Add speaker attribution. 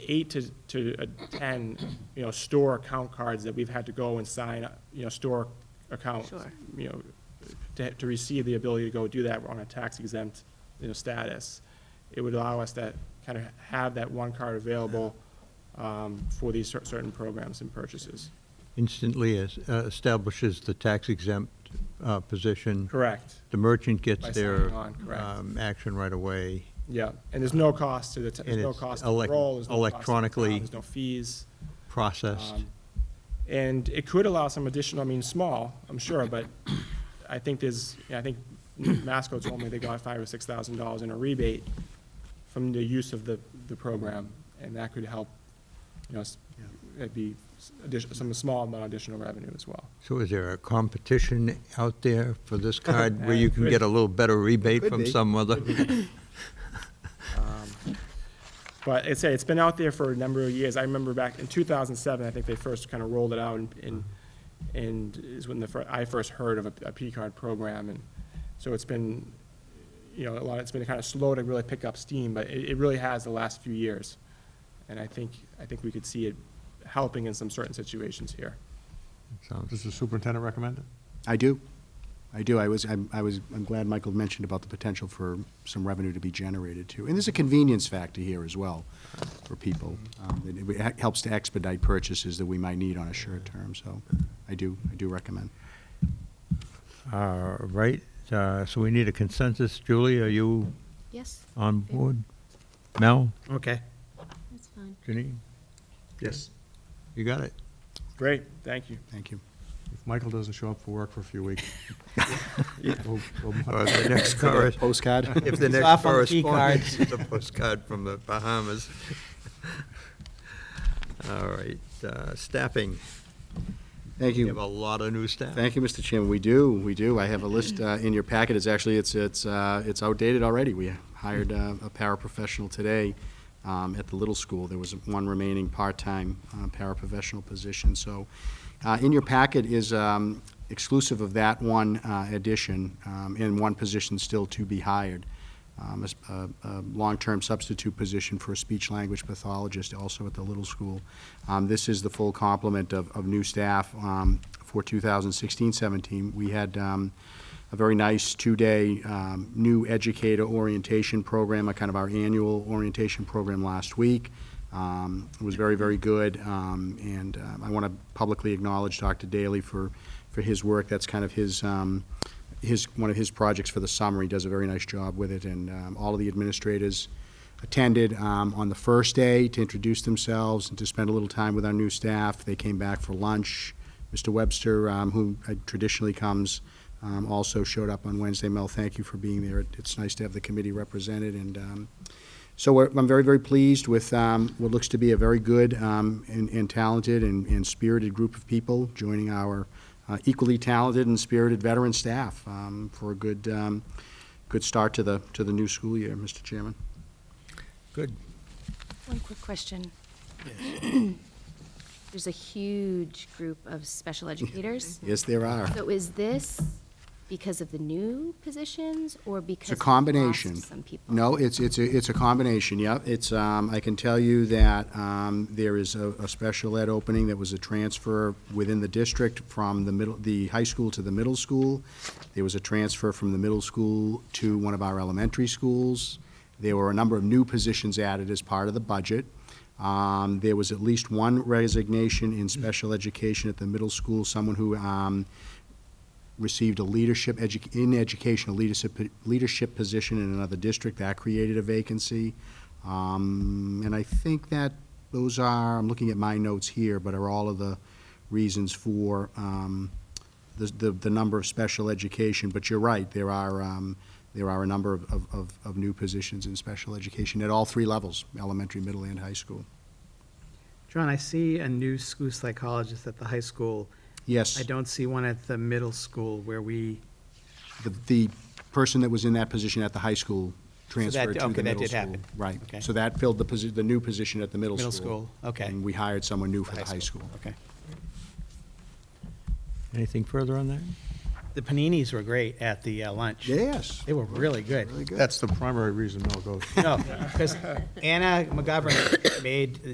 Speaker 1: eight to, to uh, ten, you know, store account cards that we've had to go and sign, uh, you know, store accounts.
Speaker 2: Sure.
Speaker 1: You know, to, to receive the ability to go do that on a tax exempt, you know, status. It would allow us to kind of have that one card available, um, for these cer- certain programs and purchases.
Speaker 3: instantly es- uh, establishes the tax exempt uh, position.
Speaker 1: Correct,
Speaker 3: The merchant gets
Speaker 1: By
Speaker 3: their
Speaker 1: signing on, correct.
Speaker 3: um, action right away.
Speaker 1: yeah, and there's no cost to the, t- there's
Speaker 3: And
Speaker 1: no
Speaker 3: it's
Speaker 1: cost to the
Speaker 3: elec-
Speaker 1: role, there's no cost to the town,
Speaker 3: electronically
Speaker 1: There's no fees.
Speaker 3: processed.
Speaker 1: Um, And it could allow some additional, I mean, small, I'm sure, but I think there's, I think Masco told me they got five or six thousand dollars in a rebate from the use of the, the program, and that could help, you know, s- it'd be s- addition, some small amount of additional revenue as well.
Speaker 3: So is there a competition out there for this card where you can
Speaker 1: Uh,
Speaker 3: get a little better rebate
Speaker 4: could
Speaker 3: from
Speaker 4: be.
Speaker 3: some other?
Speaker 1: But it's, it's been out there for a number of years. I remember back in 2007, I think they first kind of rolled it out, and- and, and is when the, fir- I first heard of a, a P-card program, and so it's been, you know, a lot, it's been kind of slow to really pick up steam, but it, it really has the last few years. And I think, I think we could see it helping in some certain situations here.
Speaker 3: Sounds-
Speaker 5: Does the superintendent recommend it?
Speaker 4: I do. I do. I was, I'm, I was, I'm glad Michael mentioned about the potential for some revenue to be generated too. And there's a convenience factor here as well for people. Um, It it ha- helps to expedite purchases that we might need on a short term, so I do, I do recommend.
Speaker 3: All right, uh, so we need a consensus. Julie, are you
Speaker 2: Yes,
Speaker 3: on board? Mel,
Speaker 6: Okay.
Speaker 2: that's fine.
Speaker 3: Janine,
Speaker 6: Yes.
Speaker 3: you got it?
Speaker 1: Great, thank you.
Speaker 4: Thank you.
Speaker 5: If Michael doesn't show up for work for a few weeks. we'll- we'll-
Speaker 3: Or the next chorus?
Speaker 4: Postcard?
Speaker 3: If the
Speaker 6: He's
Speaker 3: next
Speaker 6: off on the key
Speaker 3: correspondence is a postcard from the Bahamas. All right, uh, staffing.
Speaker 4: Thank
Speaker 3: We
Speaker 4: you.
Speaker 3: have a lot of new staff.
Speaker 4: Thank you, Mr. Chairman. We do, we do. I have a list uh, in your packet. It's actually, it's, it's, uh, it's outdated already. We hired uh, a paraprofessional today um, at the little school. There was one remaining part-time uh, paraprofessional position. So uh, in your packet is um, exclusive of that one uh, addition um, and one position still to be hired. um, a s- a- a long-term substitute position for a speech-language pathologist also at the Little School. Um, This is the full complement of, of new staff um, for 2016-17. We had um, a very nice two-day um, new educator orientation program, a kind of our annual orientation program last week. Um, It was very, very good, um, and um, I want to publicly acknowledge Dr. Daly for, for his work. That's kind of his, um, his, one of his projects for the summer. He does a very nice job with it, and um, all of the administrators attended um, on the first day to introduce themselves and to spend a little time with our new staff. They came back for lunch. Mr. Webster, um, who uh, traditionally comes, um, also showed up on Wednesday. Mel, thank you for being there. It- It's nice to have the committee represented, and um, so we're- I'm very, very pleased with um, what looks to be a very good um, and and talented and and spirited group of people joining our uh, equally talented and spirited veteran staff um, for a good, um, good start to the, to the new school year, Mr. Chairman.
Speaker 3: Good.
Speaker 2: One quick question. There's a huge group of special educators.
Speaker 4: Yes, there are.
Speaker 2: So is this because of the new positions or
Speaker 4: It's
Speaker 2: because?
Speaker 4: a
Speaker 2: we lost
Speaker 4: combination.
Speaker 2: Some people?
Speaker 4: No, it's, it's, a it's a combination, yeah. It's, um, I can tell you that, um, there is a, a special ed opening that was a transfer within the district from the middle, the high school to the middle school. There was a transfer from the middle school to one of our elementary schools. There were a number of new positions added as part of the budget. Um, there was at least one resignation in special education at the middle school, someone who, um, received a leadership, edu- in education, a leadership, leadership position in another district, that created a vacancy. Um, and I think that those are, I'm looking at my notes here, but are all of the reasons for, um, the, the, the number of special education, but you're right, there are, um, there are a number of, of- of, of new positions in special education at all three levels, elementary, middle, and high school.
Speaker 6: John, I see a new school psychologist at the high school.
Speaker 4: Yes.
Speaker 6: I don't see one at the middle school where we.
Speaker 4: The, the person that was in that position at the high school
Speaker 6: that-
Speaker 4: transferred to the middle school.
Speaker 6: okay, that did happen.
Speaker 4: Right.
Speaker 6: Okay.
Speaker 4: So that filled the posi, the new position at the middle school.
Speaker 6: Middle school, okay.
Speaker 4: And we hired someone new for the high school.
Speaker 6: Okay.
Speaker 3: Anything further on that?
Speaker 6: The paninis were great at the uh, lunch.
Speaker 4: Yes.
Speaker 6: They were really good.
Speaker 4: Very good.
Speaker 5: That's the primary reason Mel goes.
Speaker 6: No, because Anna McGovern made